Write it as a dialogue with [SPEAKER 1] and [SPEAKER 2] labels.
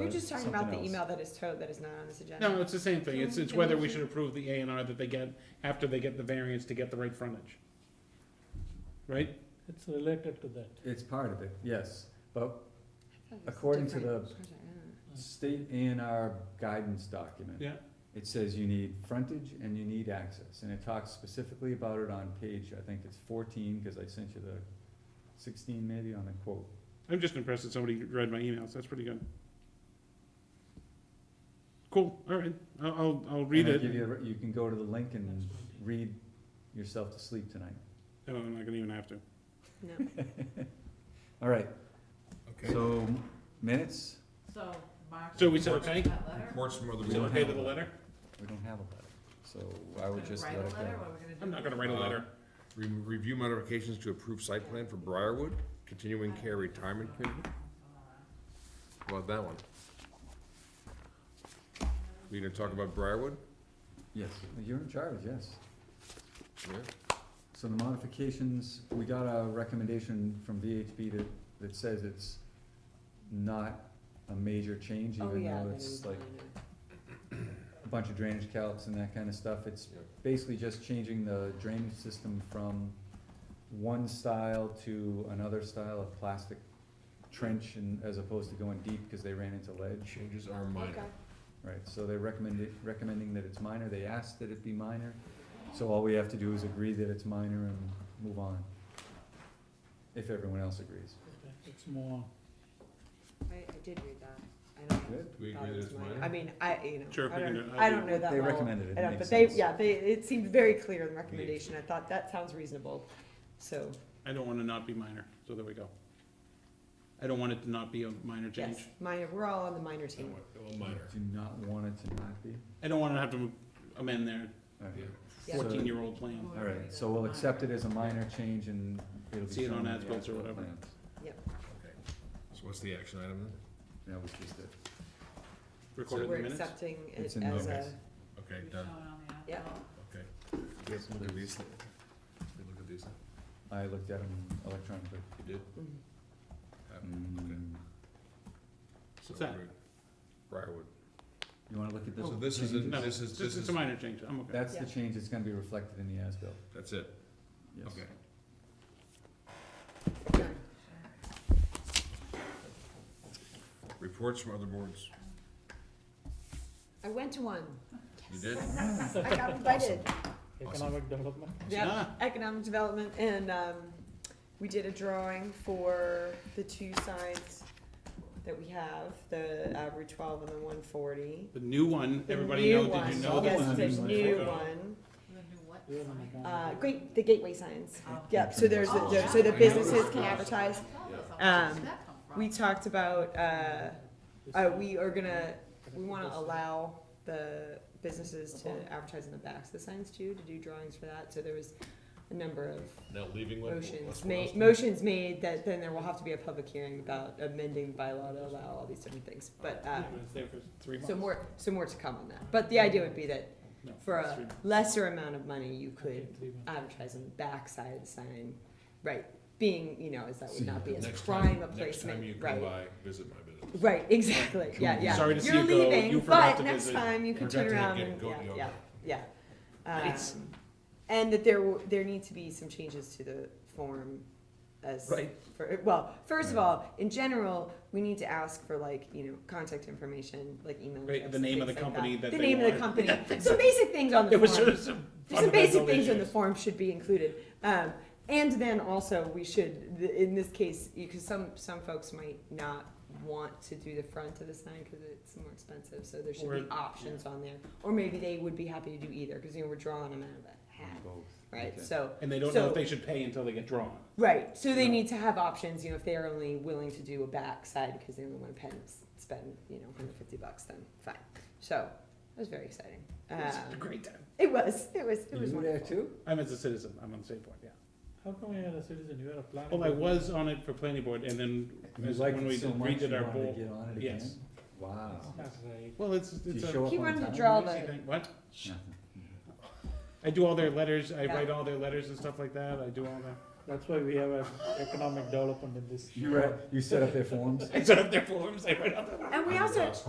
[SPEAKER 1] You're just talking about the
[SPEAKER 2] something
[SPEAKER 1] email
[SPEAKER 2] else.
[SPEAKER 1] that is towed that is not on this agenda.
[SPEAKER 3] No, it's the same thing. It's, it's whether we should approve the A and R that they get after they get the variance to get the right frontage. Right?
[SPEAKER 4] It's related to that.
[SPEAKER 2] It's part of it, yes, but
[SPEAKER 1] I thought it was
[SPEAKER 2] according to
[SPEAKER 1] different.
[SPEAKER 2] the-
[SPEAKER 1] I don't
[SPEAKER 2] state A and R guidance document.
[SPEAKER 3] Yeah.
[SPEAKER 2] It says you need frontage and you need access, and it talks specifically about it on page, I think it's fourteen, cause I sent you the sixteen maybe on the quote.
[SPEAKER 3] I'm just impressed that somebody read my emails. That's pretty good. Cool, all right. I'll, I'll, I'll read
[SPEAKER 2] And I
[SPEAKER 3] it.
[SPEAKER 2] give you, a- you can go to the link and
[SPEAKER 4] That's fine.
[SPEAKER 2] read yourself to sleep tonight.
[SPEAKER 3] No, Oh, I'm not gonna even have to.
[SPEAKER 1] know. No.
[SPEAKER 2] All right,
[SPEAKER 5] Okay.
[SPEAKER 2] so minutes,
[SPEAKER 6] So, Mark.
[SPEAKER 3] So we said
[SPEAKER 6] wrote
[SPEAKER 3] okay?
[SPEAKER 6] That letter?
[SPEAKER 5] Reports from other
[SPEAKER 3] Is it
[SPEAKER 5] board
[SPEAKER 3] okay to the letter?
[SPEAKER 2] we don't have a letter, so I would
[SPEAKER 6] Gonna
[SPEAKER 2] just let
[SPEAKER 6] Write
[SPEAKER 2] it go.
[SPEAKER 6] a letter, what are we gonna do?
[SPEAKER 3] I'm not gonna
[SPEAKER 1] Uh-huh.
[SPEAKER 3] write a letter.
[SPEAKER 5] Re- Uh, Review modifications to approve site plan for Briarwood, continuing care retirement community. How About that one. We gonna talk about Briarwood?
[SPEAKER 2] Yes, you're in charge, yes.
[SPEAKER 5] Yeah.
[SPEAKER 2] So the modifications, we got a recommendation from VHB that, that says it's not a major change,
[SPEAKER 1] Oh,
[SPEAKER 2] even
[SPEAKER 1] yeah.
[SPEAKER 2] though
[SPEAKER 1] that
[SPEAKER 2] it's
[SPEAKER 1] is
[SPEAKER 2] like
[SPEAKER 1] minor.
[SPEAKER 2] a bunch of drainage calcs and that kinda stuff, it's
[SPEAKER 5] Yep.
[SPEAKER 2] basically just changing the drainage system from one style to another style of plastic trench and, as opposed to going deep, cause they ran into ledge.
[SPEAKER 5] Changes are minor.
[SPEAKER 1] Okay.
[SPEAKER 2] Right, so they recommend it, recommending that it's minor, they asked that it be minor, so all we have to do is agree that it's minor and move on. If everyone else agrees.
[SPEAKER 4] It's more,
[SPEAKER 1] I, I did read that. I don't know.
[SPEAKER 2] Good.
[SPEAKER 5] Do we
[SPEAKER 1] thought
[SPEAKER 5] agree
[SPEAKER 1] it
[SPEAKER 5] that
[SPEAKER 1] was
[SPEAKER 5] it's
[SPEAKER 1] minor.
[SPEAKER 5] minor?
[SPEAKER 1] I mean, I, you know,
[SPEAKER 3] Sure, if
[SPEAKER 1] I
[SPEAKER 3] we can uh,
[SPEAKER 1] don't,
[SPEAKER 3] do it,
[SPEAKER 1] I
[SPEAKER 3] I'll
[SPEAKER 1] don't
[SPEAKER 3] do
[SPEAKER 1] know that
[SPEAKER 2] They
[SPEAKER 1] well.
[SPEAKER 2] recommended it,
[SPEAKER 1] I
[SPEAKER 2] it
[SPEAKER 1] don't-
[SPEAKER 2] makes
[SPEAKER 1] But they,
[SPEAKER 2] sense.
[SPEAKER 1] yeah, they, it seemed very clear in the recommendation. I thought that sounds reasonable, so.
[SPEAKER 3] I don't wanna not be minor, so there we go. I don't want it to not be a minor
[SPEAKER 1] Yes,
[SPEAKER 3] change.
[SPEAKER 1] minor, we're all on the minor team.
[SPEAKER 5] Well, Oh, minor.
[SPEAKER 2] Do not want it to not be,
[SPEAKER 3] I don't wanna have to amend their
[SPEAKER 2] alright,
[SPEAKER 1] Yeah.
[SPEAKER 3] fourteen-year-old plan.
[SPEAKER 2] alright, so we'll accept it as a minor change and it'll be
[SPEAKER 3] See it
[SPEAKER 2] shown
[SPEAKER 3] on
[SPEAKER 2] in the
[SPEAKER 3] as-built or
[SPEAKER 2] as-built
[SPEAKER 3] whatever.
[SPEAKER 2] plans.
[SPEAKER 5] Okay. So what's the action item
[SPEAKER 2] That was just it,
[SPEAKER 3] Recorded in the
[SPEAKER 1] We're
[SPEAKER 3] minutes.
[SPEAKER 1] accepting it
[SPEAKER 2] It's in
[SPEAKER 1] as
[SPEAKER 5] notice.
[SPEAKER 1] a,
[SPEAKER 5] then? Okay,
[SPEAKER 6] We've
[SPEAKER 5] done.
[SPEAKER 1] uh,
[SPEAKER 6] shown on the
[SPEAKER 1] Yeah.
[SPEAKER 6] outlaw.
[SPEAKER 5] Okay. Yes, look at these. We Look at these.
[SPEAKER 2] I looked at them electronically.
[SPEAKER 5] You did?
[SPEAKER 1] Mhm.
[SPEAKER 5] Okay.
[SPEAKER 2] Mm,
[SPEAKER 5] So
[SPEAKER 3] What's that?
[SPEAKER 5] we're- Briarwood.
[SPEAKER 2] You wanna look at Oh, this?
[SPEAKER 5] So this is, a-
[SPEAKER 2] change?
[SPEAKER 3] No,
[SPEAKER 5] this is,
[SPEAKER 3] It's,
[SPEAKER 5] this
[SPEAKER 3] it's
[SPEAKER 5] is,
[SPEAKER 3] a minor change, I'm okay.
[SPEAKER 2] That's the
[SPEAKER 1] Yeah.
[SPEAKER 2] change that's gonna be reflected in the as-built,
[SPEAKER 5] that's it.
[SPEAKER 2] yes.
[SPEAKER 5] Okay.
[SPEAKER 1] done.
[SPEAKER 5] Reports from other boards.
[SPEAKER 1] I went to one.
[SPEAKER 5] You did?
[SPEAKER 1] I got invited.
[SPEAKER 4] economic development.
[SPEAKER 1] Yeah,
[SPEAKER 3] Ah.
[SPEAKER 1] economic development and, um, we did a drawing for the two signs that we have, the uh, Route twelve and the one forty.
[SPEAKER 3] The new one,
[SPEAKER 1] The
[SPEAKER 3] everybody
[SPEAKER 1] new
[SPEAKER 3] know, did you
[SPEAKER 1] one.
[SPEAKER 3] know that?
[SPEAKER 2] one
[SPEAKER 1] Yes,
[SPEAKER 2] is
[SPEAKER 1] the
[SPEAKER 2] like-
[SPEAKER 1] new one,
[SPEAKER 6] The new what
[SPEAKER 4] You're an
[SPEAKER 6] sign?
[SPEAKER 4] economic-
[SPEAKER 1] uh, great, the gateway signs.
[SPEAKER 6] Oh.
[SPEAKER 1] Yep, so there's, the-
[SPEAKER 6] Oh,
[SPEAKER 1] the- so the
[SPEAKER 6] yeah.
[SPEAKER 1] businesses can advertise.
[SPEAKER 6] Where's
[SPEAKER 1] Um,
[SPEAKER 6] that come from?
[SPEAKER 1] We talked about, uh,
[SPEAKER 4] This
[SPEAKER 1] uh,
[SPEAKER 4] is-
[SPEAKER 1] we are gonna, we wanna
[SPEAKER 4] This is-
[SPEAKER 1] allow the businesses to
[SPEAKER 5] Uh-huh.
[SPEAKER 1] advertise in the backs of the signs too, to do drawings for that, so there was a number of
[SPEAKER 5] Now leaving what?
[SPEAKER 1] motions
[SPEAKER 5] what's-
[SPEAKER 1] made, motions made that then there will have to be a public hearing about amending the bylaw to allow all these different things, but, uh,
[SPEAKER 3] Yeah, but it's there for three
[SPEAKER 1] so
[SPEAKER 3] months.
[SPEAKER 1] more, so more to come on that, but the idea would be that
[SPEAKER 3] No,
[SPEAKER 1] for
[SPEAKER 3] it's three
[SPEAKER 1] a
[SPEAKER 3] months.
[SPEAKER 1] lesser amount of money, you
[SPEAKER 4] Okay,
[SPEAKER 1] could
[SPEAKER 4] three months.
[SPEAKER 1] advertise on the backside of the sign, right, being, you know, as that would not be as
[SPEAKER 5] Next time-
[SPEAKER 1] prime a
[SPEAKER 5] Next time you
[SPEAKER 1] placement, right?
[SPEAKER 5] come by, visit my business.
[SPEAKER 1] Right, exactly, yeah, yeah.
[SPEAKER 3] Sorry to see
[SPEAKER 1] You're
[SPEAKER 3] you go.
[SPEAKER 1] leaving,
[SPEAKER 3] You forgot
[SPEAKER 1] but
[SPEAKER 3] to
[SPEAKER 1] next
[SPEAKER 3] visit.
[SPEAKER 1] time you can
[SPEAKER 5] Forgot
[SPEAKER 1] turn
[SPEAKER 5] to
[SPEAKER 1] around
[SPEAKER 5] get
[SPEAKER 1] and,
[SPEAKER 5] goat
[SPEAKER 1] yeah,
[SPEAKER 5] yoga.
[SPEAKER 1] yeah, yeah.
[SPEAKER 5] Nice.
[SPEAKER 1] Um, And that there, w- there need to be some changes to the form as,
[SPEAKER 2] Right.
[SPEAKER 1] for, well, first of all, in general, we need to ask for like, you know, contact information, like email.
[SPEAKER 3] Right,
[SPEAKER 1] address
[SPEAKER 3] the
[SPEAKER 1] and
[SPEAKER 3] name of
[SPEAKER 1] things
[SPEAKER 3] the
[SPEAKER 1] like
[SPEAKER 3] company that
[SPEAKER 1] The
[SPEAKER 3] they
[SPEAKER 1] name of the company, some basic things on the
[SPEAKER 3] It was sort
[SPEAKER 1] form,
[SPEAKER 3] of some
[SPEAKER 1] some basic
[SPEAKER 3] fundamental
[SPEAKER 1] things on the
[SPEAKER 3] issues.
[SPEAKER 1] form should be included. Um, and then also, we should, th- in this case, because some, some folks might not want to do the front of the sign because it's more expensive, so there should
[SPEAKER 3] Or-
[SPEAKER 1] be options on there. Or maybe they would be happy to do either, because, you know, we're drawing them out of a hat,
[SPEAKER 2] Both.
[SPEAKER 1] right?
[SPEAKER 2] Okay.
[SPEAKER 1] So,
[SPEAKER 3] And they don't know
[SPEAKER 1] So-
[SPEAKER 3] if they should pay until they get drawn.
[SPEAKER 1] right, so they
[SPEAKER 3] No.
[SPEAKER 1] need to have options, you know, if they're only willing to do a backside because they only want to pen, spend, you know, hundred fifty bucks, then fine. So, it was very exciting.
[SPEAKER 3] It's
[SPEAKER 1] Um,
[SPEAKER 3] a great time.
[SPEAKER 1] It was, it was, it
[SPEAKER 2] You
[SPEAKER 1] was
[SPEAKER 2] were there
[SPEAKER 1] wonderful.
[SPEAKER 2] too?
[SPEAKER 3] I'm as a citizen, I'm on the same board, yeah.
[SPEAKER 4] How come you're a citizen, you're a planning?
[SPEAKER 3] Well, I
[SPEAKER 4] board.
[SPEAKER 3] was on it for planning board and then
[SPEAKER 2] You
[SPEAKER 3] as-
[SPEAKER 2] liked
[SPEAKER 3] when
[SPEAKER 2] it
[SPEAKER 3] we
[SPEAKER 2] so
[SPEAKER 3] did-
[SPEAKER 2] much,
[SPEAKER 3] redid
[SPEAKER 2] you
[SPEAKER 3] our
[SPEAKER 2] wanted to
[SPEAKER 3] bowl.
[SPEAKER 2] get on it
[SPEAKER 3] Yes.
[SPEAKER 2] again? Wow.
[SPEAKER 4] That's right.
[SPEAKER 3] Well, it's,
[SPEAKER 2] Did
[SPEAKER 3] it's
[SPEAKER 2] you
[SPEAKER 3] a.
[SPEAKER 2] show up
[SPEAKER 1] He
[SPEAKER 2] on
[SPEAKER 1] wanted to
[SPEAKER 2] time?
[SPEAKER 1] draw
[SPEAKER 3] easy
[SPEAKER 1] the,
[SPEAKER 3] thing. What?
[SPEAKER 2] Nothing.
[SPEAKER 3] I do all their letters, I
[SPEAKER 1] Yeah.
[SPEAKER 3] write all their letters and stuff like that, I do all that.
[SPEAKER 4] That's why we have a economic development in this.
[SPEAKER 2] You read, you set up their forms?
[SPEAKER 3] I set up their forms, I write out the
[SPEAKER 1] And we also,